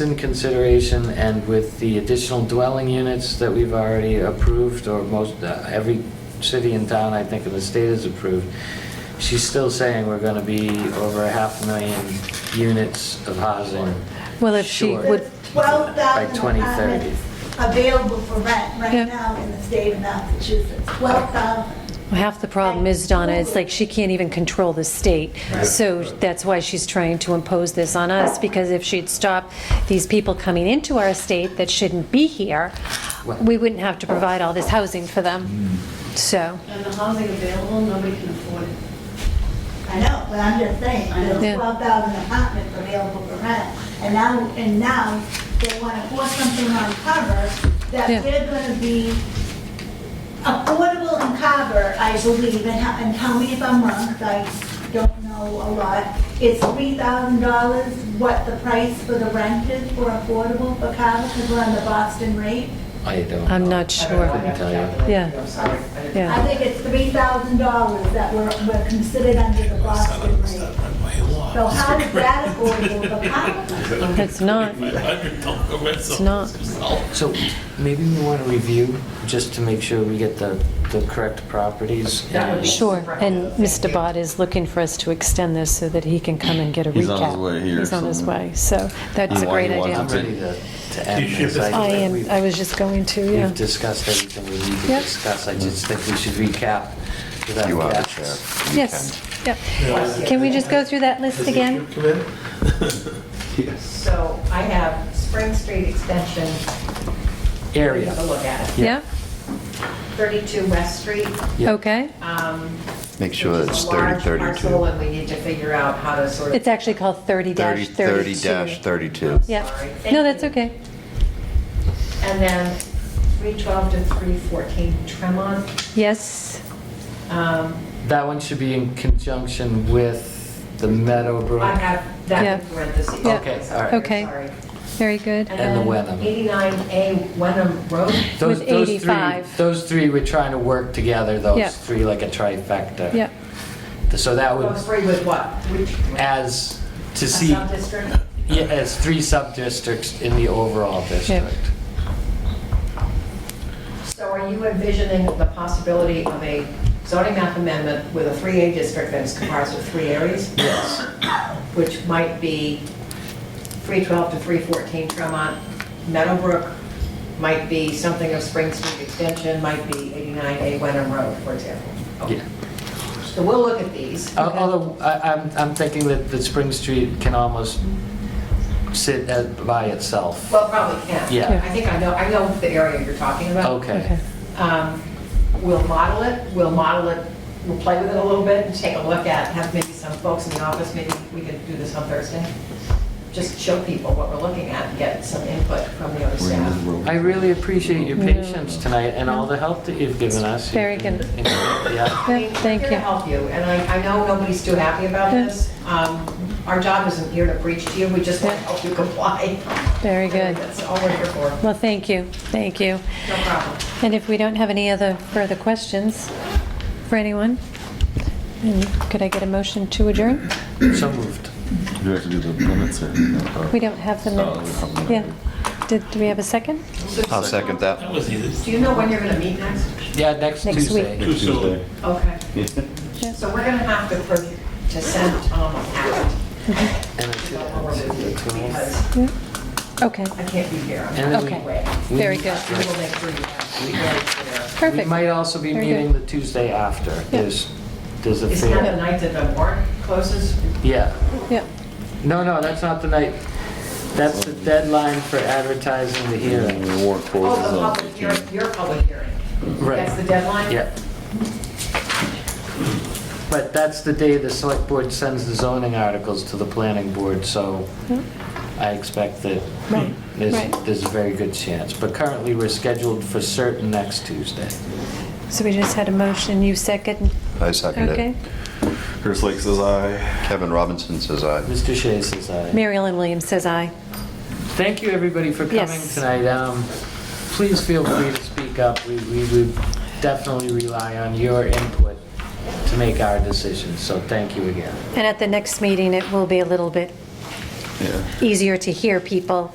in consideration and with the additional dwelling units that we've already approved, or most, uh, every city and town, I think, in the state has approved, she's still saying we're gonna be over a half a million units of housing. Well, if she short would- There's 12,000 By 2030. apartments available for rent Yeah. right now in the state of Massachusetts, 12,000. Well, Half the problem is, Donna, it's like she can't even control the state. So that's why she's trying to impose this on us, because if she'd stop these people coming into our state that shouldn't be here, we wouldn't have to provide all this housing for them. So, And the housing available, nobody can afford it. I know, but I'm just saying, I know. Yeah. there's 12,000 apartments available for rent. And now, and now they want to force something on Carver Yeah. that they're going to be affordable in Carver, I believe, and how- and tell me if I'm wrong, 'cause I don't know a lot. It's $3,000 what the price for the rent is for affordable for Carver, because we're on the Boston rate. I don't know. I'm not I don't know, I sure. Couldn't have to tell you. calculate. Yeah. I'm sorry. I didn't- Yeah. I think it's three thousand dollars that were, were considered under the Boston rate. So how is that affordable for Powell? It's not. It's not. So maybe we want to review, just to make sure we get the, the correct properties. That would be- Sure, and Mr. Bott is looking for us to extend this so that he can come and get a recap. He's on his way here, He's on his so- way, so that's a Why great he idea. I'm wants it. ready to, to end this. I think am, we've- I was just going to, yeah. We've discussed everything we need to Yep. discuss. I just think we should recap. without You are the gaps. chair. You Yes, yeah. Can we just go through that list again? So I have Spring Street Extension. Area. Take a look at it. Yeah, 32 West Street. Yeah. okay. um, Make sure which it's is a large 30, parcel, 32. And we need to figure out how to sort of. It's actually called 30, 30-32. 30-32. Yeah, Sorry. no, that's okay. And then 312 to 314 Tremont. Yes, Um, That one should be in conjunction with the Meadowbrook. I have that in Yeah. parentheses. Yeah. Okay, all right. Okay. Sorry. very good. And the then Wenham. 89A Wenham Road. Those- with those three- 85. Those three, we're trying to work together, Yeah. those three, like a trifecta. Yeah, So that Oh, would, three with what? Which? as, to A see, sub-district? yeah, as three sub-districts in the overall district. So are you envisioning the possibility of a zoning map amendment with a 3A district that is comprised of three areas? Yes. Which might be 312 to 314 Tremont, Meadowbrook, might be something of Spring Street Extension, might be 89A Wenham Road, for example. Okay. Yeah. So we'll look at these. Al- Although, I- I'm, I'm thinking that, that Spring Street can almost sit as- by itself. Well, probably can. Yeah. I think I know, I know the area you're talking about. Okay. okay. Um, We'll model it, we'll model it, we'll play with it a little bit and take a look at, have maybe some folks in the office, maybe we could do this on Thursday. Just show people what we're looking at and get some input from the other staff. I really appreciate your patience tonight and all the help that you've given us. Very You've been- good. Yeah. I mean, Yeah, thank We're here to you. help you, and I, I know nobody's too happy about Yeah. this. Um, Our job isn't here to preach to you, we just want to help you comply. Very good. That's all we're here for, no Well, thank you, thank you. problem. And if we don't have any other further questions for anyone, then could I get a motion to adjourn? So moved. You have to do the minutes or? no? We don't have the Oh, we minutes. don't have the Yeah. minutes. Did, do we have a second? I'll second that. Do you know when you're going to meet next? Yeah, next Next week. Tuesday. Tuesday. Okay. So we're going to have to, pro- to send um, Tom out. And it's- it's the 12th. because Yeah. Okay, I can't be here. And then we- Okay. Anyway, very good. we will make sure you have. We Perfect. might also be Very meeting the Tuesday after. There's, there's a Is that the fair. night that the warrant closes? Yeah. Yeah, No, no, that's not the night. That's the deadline for advertising the And hearing. the warrant Oh, closes the on public hearing, 15. your public hearing. That's the Right. deadline? Yeah. But that's the day the select board sends the zoning articles to the planning board, so I expect that Mm-hmm. Right, there's, right. there's a very good chance. But currently, we're scheduled for certain next Tuesday. so we just had a motion, you second, I second okay? it. Chris Lake says aye. Kevin Robinson says aye. Mr. Shea says aye. Mary Ellen Williams says aye. Thank you, everybody, for coming Yes. tonight. Um, Please feel free to speak up. We we would definitely rely on your input to make our decisions, so thank you again. And at the next meeting, it will be a little bit Yeah. easier to hear people